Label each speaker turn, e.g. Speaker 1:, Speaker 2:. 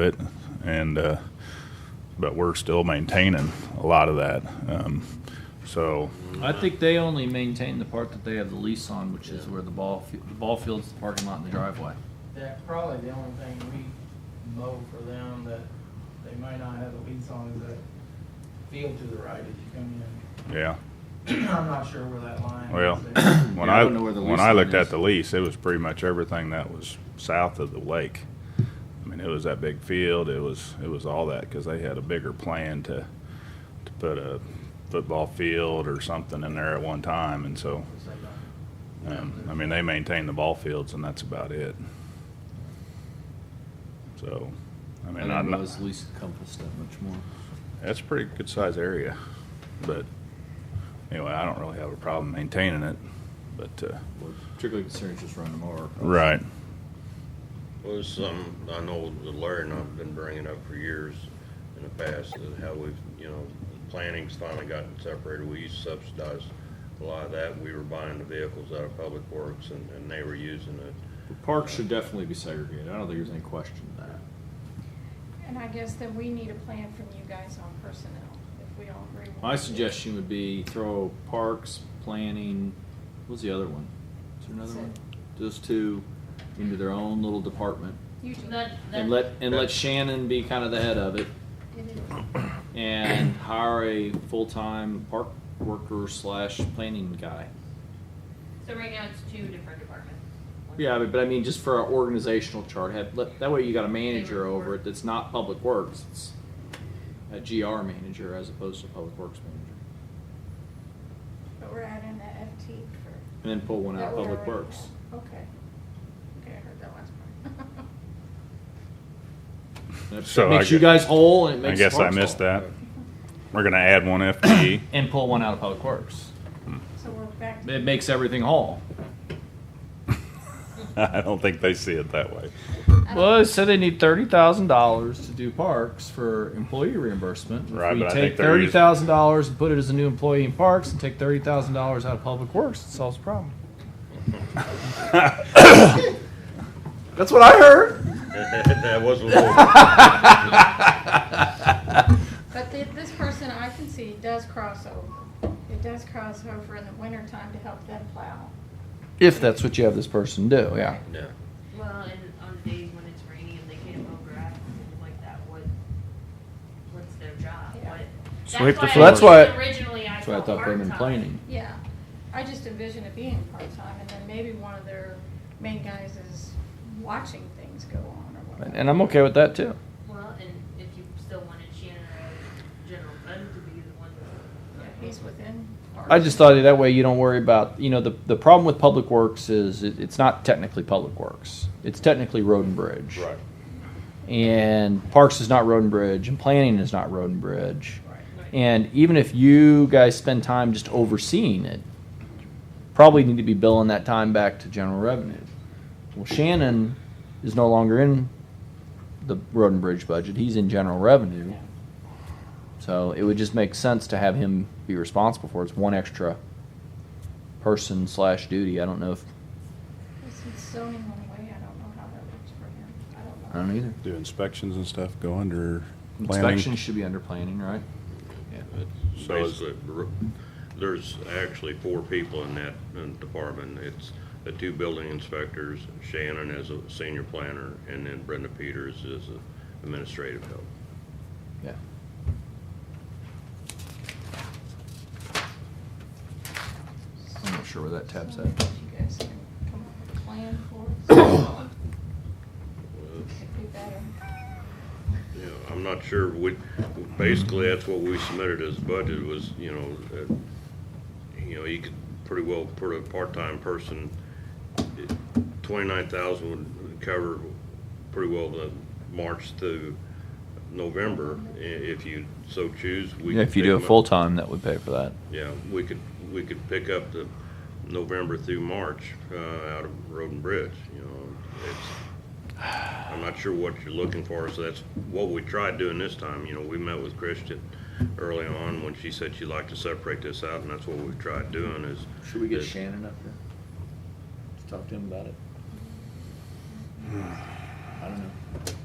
Speaker 1: it, and uh, but we're still maintaining a lot of that. Um, so
Speaker 2: I think they only maintain the part that they have the lease on, which is where the ball, fi- the ball field's the parking lot and the driveway.
Speaker 3: That probably the only thing we mow for them that they might not have a lease on is that field to the right as you come
Speaker 1: yeah,
Speaker 3: in. I'm not sure where that line
Speaker 1: well,
Speaker 3: is.
Speaker 1: when
Speaker 2: Yeah, I
Speaker 1: I,
Speaker 2: don't know where the
Speaker 1: when
Speaker 2: lease
Speaker 1: I
Speaker 2: line
Speaker 1: looked
Speaker 2: is.
Speaker 1: at the lease, it was pretty much everything that was south of the lake. I mean, it was that big field. It was it was all that because they had a bigger plan to to put a football field or something in there at one time, and so um, I mean they maintain the ball fields, and that's about it. So, I
Speaker 2: I
Speaker 1: mean,
Speaker 2: didn't
Speaker 1: I'm not,
Speaker 2: realize the lease encompassed that much more.
Speaker 1: That's a pretty good sized area, but anyway, I don't really have a problem maintaining it, but, uh.
Speaker 2: We're Particularly concerned is just running them over.
Speaker 1: Right.
Speaker 4: Well, it's something I know that Larry and I've been bringing up for years in the past, is how we've, you know, planning's finally gotten separated. We used to subsidize a lot of that. We were buying the vehicles out of Public Works and, and they were using it.
Speaker 5: Parks should definitely be segregated. I don't think there's any question of that.
Speaker 6: And I guess then we need a plan from you guys on personnel, if we all agree. with
Speaker 5: My
Speaker 6: it.
Speaker 5: suggestion would be throw parks, planning, what's the other one? Is there another
Speaker 6: That's
Speaker 5: one?
Speaker 6: it.
Speaker 5: Those two into their own little department.
Speaker 6: You do.
Speaker 7: That,
Speaker 5: And
Speaker 7: that,
Speaker 5: let, and let Shannon be kind of the head of it
Speaker 6: It is.
Speaker 5: and hire a full-time park worker slash planning guy.
Speaker 7: so right now it's two different departments.
Speaker 5: Yeah, but, but I mean, just for our organizational chart, have, let, that way you got a manager over it that's not public works. It's a GR manager as opposed to a public works manager.
Speaker 6: But we're adding the FT for.
Speaker 5: And then pull one out
Speaker 6: that
Speaker 5: of
Speaker 6: we
Speaker 5: public
Speaker 6: already
Speaker 5: works.
Speaker 6: have. Okay. Okay, I heard that last part.
Speaker 5: That
Speaker 1: So I
Speaker 5: makes you
Speaker 1: gue-
Speaker 5: guys whole and it
Speaker 1: I
Speaker 5: makes.
Speaker 1: guess I
Speaker 5: Parks
Speaker 1: missed
Speaker 5: whole.
Speaker 1: that. We're gonna add one E. FTE.
Speaker 2: And pull one out of Public Works.
Speaker 6: So we're back,
Speaker 2: It makes everything whole.
Speaker 1: I don't think they see it that way.
Speaker 2: Well, it said they need thirty thousand dollars to do parks for employee reimbursement. If
Speaker 1: Right,
Speaker 2: we
Speaker 1: but I
Speaker 2: take
Speaker 1: think there
Speaker 2: thirty
Speaker 1: is-
Speaker 2: thousand dollars and put it as a new employee in parks and take thirty thousand dollars out of Public Works, it solves the problem. That's what I heard.
Speaker 4: That was a little,
Speaker 6: but the- this person I can see does cross over. It does cross over in the wintertime to help them plow.
Speaker 2: If that's what you have this person do, yeah.
Speaker 4: yeah.
Speaker 7: Well, and on the days when it's rainy and they can't mow grass and things like that, what, what's their job?
Speaker 6: Yeah.
Speaker 7: What?
Speaker 5: Sweep the
Speaker 7: That's why
Speaker 5: floors.
Speaker 2: That's why-
Speaker 7: I think Originally, I
Speaker 5: That's why I
Speaker 7: thought
Speaker 5: thought they were in
Speaker 7: part-time.
Speaker 5: planning.
Speaker 6: Yeah, I just envision it being part-time, and then maybe one of their main guys is watching things go on or whatever.
Speaker 2: And, and I'm okay with that too.
Speaker 7: Well, and if you still wanted Shannon or General Fund to be the one.
Speaker 6: Yeah, He's within.
Speaker 2: I just thought that way you don't worry about, you know, the, the problem with public works is it, it's not technically public works. It's technically road and bridge.
Speaker 4: Right.
Speaker 2: And parks is not road and bridge and planning is not road and bridge.
Speaker 7: Right.
Speaker 2: And even if you guys spend time just overseeing it, probably need to be billing that time back to general revenue. Well, Shannon is no longer in the road and bridge budget. He's in general revenue. So it would just make sense to have him be responsible for it. It's one extra person slash duty. I don't know if,
Speaker 6: Since zoning went away, I don't know how that works for him. I don't know.
Speaker 2: I don't either.
Speaker 8: Do inspections and stuff go under
Speaker 2: Inspections should be under planning, right?
Speaker 4: It's
Speaker 1: So is-
Speaker 4: Basically, r- there's actually four people in that uh, department. It's the two building inspectors, Shannon as a senior planner, and then Brenda Peters as a administrative help.
Speaker 2: Yeah. I'm not sure where that tab's
Speaker 6: So
Speaker 2: at.
Speaker 6: You guys can come up with a plan for it. It'd be better.
Speaker 4: Yeah, I'm not sure, we, basically, that's what we submitted as budget was, you know, uh, you know, you could pretty well put a part-time person, twenty-nine thousand would cover pretty well the March through November, i- if you so choose. we
Speaker 2: Yeah,
Speaker 4: could
Speaker 2: if you
Speaker 4: pick
Speaker 2: do it
Speaker 4: them up.
Speaker 2: full time, that would pay for that.
Speaker 4: Yeah, we could, we could pick up the November through March, uh, out of Road and Bridge, you know, it's, I'm not sure what you're looking for, so that's what we tried doing this time, you know, we met with Christian early on when she said she'd like to separate this out, and that's what we tried doing is.
Speaker 5: Should we get
Speaker 4: is-
Speaker 5: Shannon up here? Let's talk to him about it. I don't know.